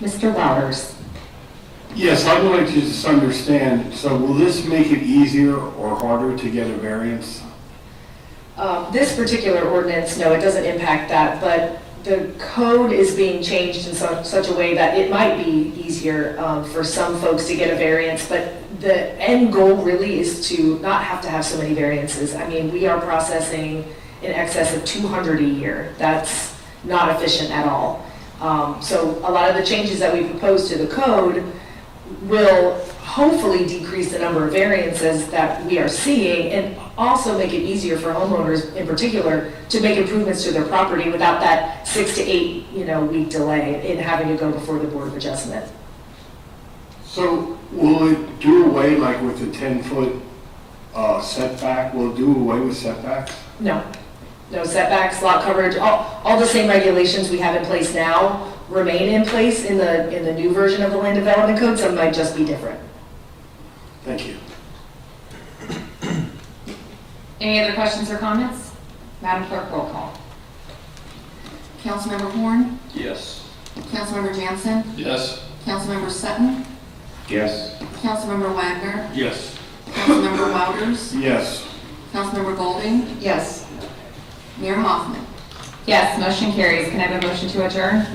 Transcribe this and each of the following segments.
Mr. Bowers? Yes, I would like to just understand, so will this make it easier or harder to get a variance? Uh, This particular ordinance, no, it doesn't impact that, but the code is being changed in such, such a way that it might be easier um, for some folks to get a variance, but the end goal really is to not have to have so many variances. I mean, we are processing in excess of 200 a year. That's not efficient at all. Um, So a lot of the changes that we propose to the code will hopefully decrease the number of variances that we are seeing and also make it easier for homeowners in particular to make improvements to their property without that six to eight, you know, week delay in having to go before the Board of Adjustment. So will it do away, like with the 10-foot uh, setback, will it do away with setbacks? No, no setbacks, lot coverage, all, all the same regulations we have in place now remain in place in the, in the new version of the Land Development Code, some might just be different. Thank you. Any other questions or comments? Madam Clerk, roll call. Councilmember Horn, Yes. Councilmember Jansen, Yes. Councilmember Sutton, Yes. Councilmember Wagner, Yes. Councilmember Wouters, Yes. Councilmember Golding, Yes. Mayor Hoffman. Yes, motion carries. Can I have a motion to adjourn?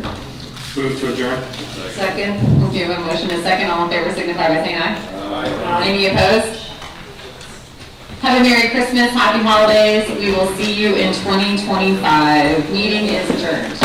Move to adjourn. Second. We have a motion and a second. All in favor signify by saying aye. Any opposed? Have a Merry Christmas, Happy Holidays. We will see you in 2025. Meeting is adjourned.